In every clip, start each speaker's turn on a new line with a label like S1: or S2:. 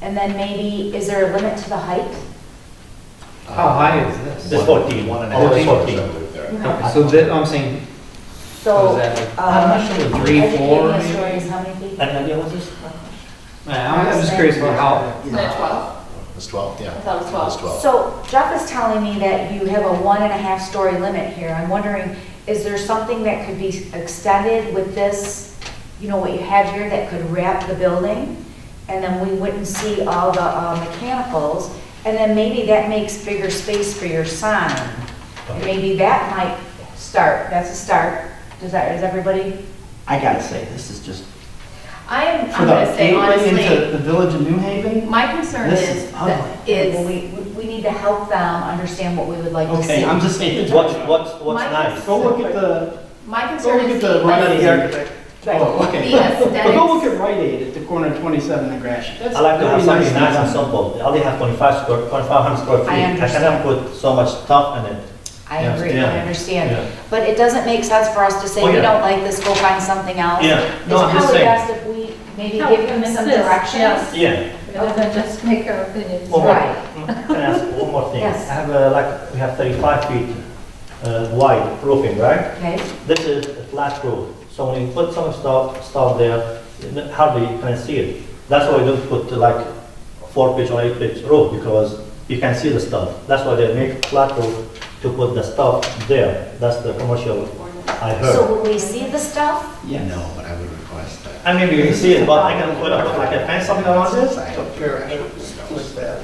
S1: And then maybe, is there a limit to the height?
S2: How high is this?
S3: This fourteen, one and a
S2: Oh,
S3: half,
S2: it's
S3: fourteen.
S2: Okay, So that, I'm saying,
S1: So.
S2: What is that, like,
S4: uh,
S1: um,
S2: I'm not sure, like three,
S1: I think
S2: four,
S1: maybe a
S2: maybe?
S1: story is how many feet?
S3: Any idea what's this?
S2: I'm I'm just curious about how,
S4: Isn't it 12?
S5: It's 12, yeah.
S4: I thought it was 12.
S5: It's 12.
S1: So Jeff is telling me that you have a one and a half story limit here. I'm wondering, is there something that could be extended with this, you know, what you have here that could wrap the building? And then we wouldn't see all the uh, mechanicals, and then maybe that makes bigger space for your sign. And Maybe that might start, that's a start. Does that, is everybody?
S6: I gotta say, this is just,
S4: I am,
S6: for
S4: I'm
S6: the
S4: gonna say
S6: gateway into
S4: honestly,
S6: the village of New Haven,
S4: my concern
S6: This
S4: is,
S6: is
S4: that
S6: ugly.
S1: Well,
S4: is,
S1: We, we- we need to help them understand what we would like to see.
S6: okay, I'm just saying.
S3: What's, what's, what's
S4: Mine
S3: nice?
S4: is-
S6: Go look at the,
S4: my
S6: go
S4: concern
S6: look at
S4: is
S6: the Rite Aid.
S4: the
S6: Oh, okay.
S4: the aesthetics.
S6: But go look at Rite Aid at the corner of 27 and Grashit. That's
S3: I like to have
S6: very
S3: something
S6: nicely
S3: nice and
S6: done.
S3: simple. They only have twenty-five square, twenty-five hundred square feet.
S1: understand.
S3: cannot put so much stuff in it.
S1: I
S3: Yeah,
S1: agree,
S3: yeah,
S1: I understand.
S3: yeah.
S1: But it doesn't make sense for us to say,
S3: Oh,
S1: we
S3: yeah.
S1: don't like this, go find something else.
S3: Yeah, no,
S1: It's
S3: I'm just
S1: probably
S3: saying.
S1: best if we maybe give them some directions.
S3: Yeah.
S7: Rather than just make our opinions.
S3: Well,
S1: Right.
S3: Can I ask one more thing?
S1: Yes.
S3: I have a, like, we have thirty-five feet uh, wide roofing, right?
S1: Okay,
S3: This is a flat roof, so when you put some stuff, stuff there, n- hardly you can see it. That's why you don't put uh, like four pitch or eight pitch roof, because you can see the stuff. That's why they make flat roof to put the stuff there. That's the commercial I heard.
S1: so will we see the stuff?
S6: Yes.
S5: No, but I would request that.
S3: I mean, you can see it, but I can put up like a fence something around this.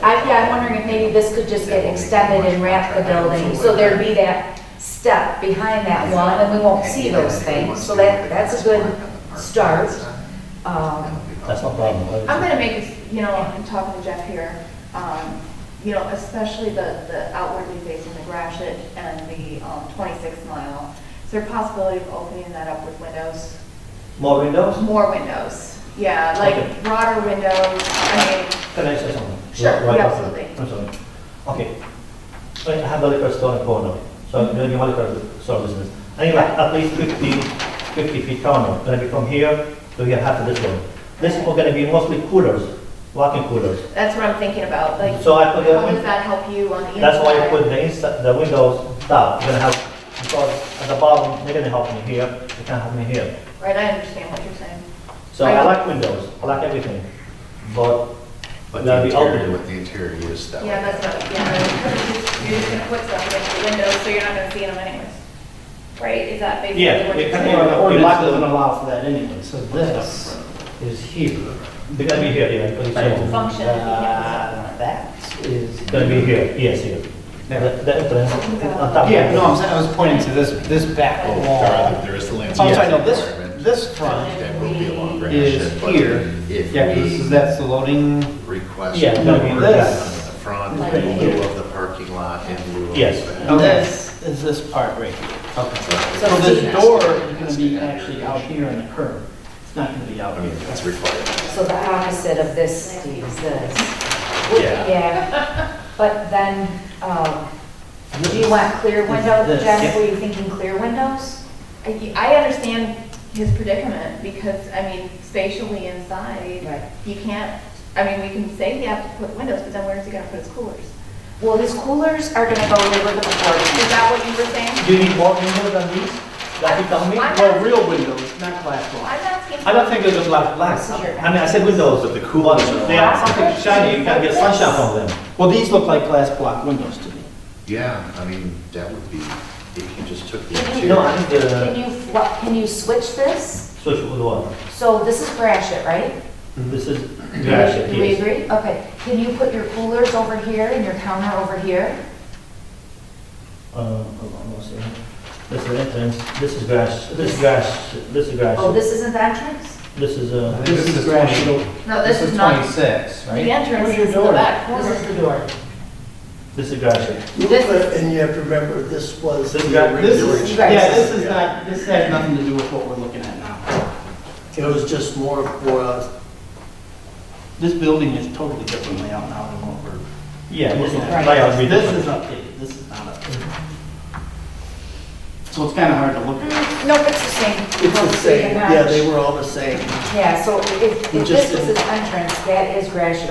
S1: I, yeah, I'm wondering if maybe this could just get extended and wrap the building, so there'd be that step behind that one, and we won't see those things. So that, that's a good start. um,
S3: That's no problem.
S4: I'm gonna make, a- you know, I'm talking to Jeff here, um, you know, especially the, the outwardly facing the Grashit and the, um, twenty-six mile. Is there a possibility of opening that up with windows?
S3: More windows?
S4: More windows, yeah,
S3: Okay.
S4: like broader windows, I mean,
S3: Can I say something?
S4: Sure,
S3: Right- right after.
S4: absolutely.
S3: I'm sorry. Okay. So I have the liquor store in corner, so I'm doing a liquor store business. I think like at least 50, 50 feet corner, gonna be from here to here, half of this one. This is gonna be mostly coolers, walking coolers.
S4: that's what I'm thinking about, like,
S3: So I put the
S4: how
S3: win-
S4: does that help you on the inside?
S3: That's why I put the inside, the windows down, you're gonna have, because at the bottom, they're gonna help me here, they can't help me here.
S4: Right, I understand what you're saying.
S3: So I like windows, I like everything, but
S5: But
S3: That'd
S5: the
S3: be
S5: interior,
S3: open.
S5: with the interior use, that
S4: Yeah, that's
S5: would,
S4: not, yeah, you're just gonna put stuff against the windows, so you're not gonna see them anyways. Right, is that basically
S3: Yeah,
S4: what
S3: it
S4: you're
S3: can
S6: And
S4: saying?
S6: our
S3: It
S6: ordinance
S3: locks
S6: doesn't
S3: them.
S6: allow for that anyway, so this is here.
S3: they're gonna be here, yeah, because it's-
S4: Function, if you have
S6: Uh, That is.
S3: It's gonna be here, yes, here. The the entrance, on top.
S6: Yeah, no, I'm saying, I was pointing to this, this back
S5: oh, there
S6: wall.
S5: are, there is the landscape.
S6: So I'm Oh, sorry, no,
S5: requirement
S6: this, this front
S5: That will be along Grand
S6: is
S5: Ship, but
S6: here.
S5: If
S6: Yeah, 'cause this is,
S5: we
S6: that's the loading.
S5: request.
S3: Yeah, no, I mean,
S5: on
S6: this-
S5: The front,
S6: Like
S5: in
S6: here.
S5: lieu of the parking lot, in lieu of.
S3: Yes.
S5: that.
S6: And this is this part right here. Okay. So
S5: So
S6: this
S5: it's-
S6: door is gonna be actually out here in the curb. It's not gonna be out
S5: I
S6: here.
S5: mean, that's required.
S1: So the opposite of this is this.
S5: Yeah.
S1: Yeah, but then, um, do you want clear windows?
S6: This.
S1: Jeff, were you thinking clear windows?
S4: I I understand his predicament, because, I mean, spatially inside,
S1: Right.
S4: you can't, I mean, we can say he has to put windows, but then where's he gonna put his coolers?
S1: Well, his coolers are gonna go where the
S4: Is
S1: before.
S4: that what you were saying?
S3: Do you need more windows than these? Like you tell me?
S4: I'm
S6: Well,
S4: asking,
S6: real windows, not glass
S4: I'm
S6: walls.
S4: asking.
S3: I don't think there's a lot of glass. I mean, I said windows, but the cool ones, they are something shiny, you can get sunshine from them.
S6: Well, these look like glass block windows to me.
S5: Yeah, I mean, that would be, if you just took the
S1: Can you-
S5: interior.
S3: No, I need
S1: Can
S3: the
S1: you, what, can you switch this?
S3: switch with one.
S1: So this is Grashit, right?
S3: This is,
S1: Do we
S3: yes.
S1: agree? Okay, can you put your coolers over here and your counter over here?
S3: Uh, hold on, one second. This is entrance, this is grass, this is grass, this is
S1: Oh,
S3: grass,
S1: this isn't the entrance?
S3: this is, uh,
S6: This is gradual.
S4: No, this is not,
S6: Twenty-six,
S4: the
S6: right?
S4: entrance
S8: Where's your
S4: is the
S8: door?
S4: back corner.
S1: This is the door.
S3: this is grass.
S8: You
S4: This
S8: put-
S4: is-
S8: And you have to remember, this was
S3: This is
S8: the
S3: grass.
S6: This
S8: original,
S6: is, yeah, this is not, this has nothing to do with what we're looking at now.
S8: it was just more for us.
S6: This building is totally different layout now than what we're.
S3: Yeah, this is,
S6: Right.
S3: layout will be
S6: This
S3: different.
S6: is updated, this is not updated. So it's kinda hard to look at.
S1: Nope, it's the same.
S8: It's the same, yeah, they were all the same.
S1: Yeah, so if,
S8: You
S1: if
S8: just
S1: this is his entrance, that is Grashit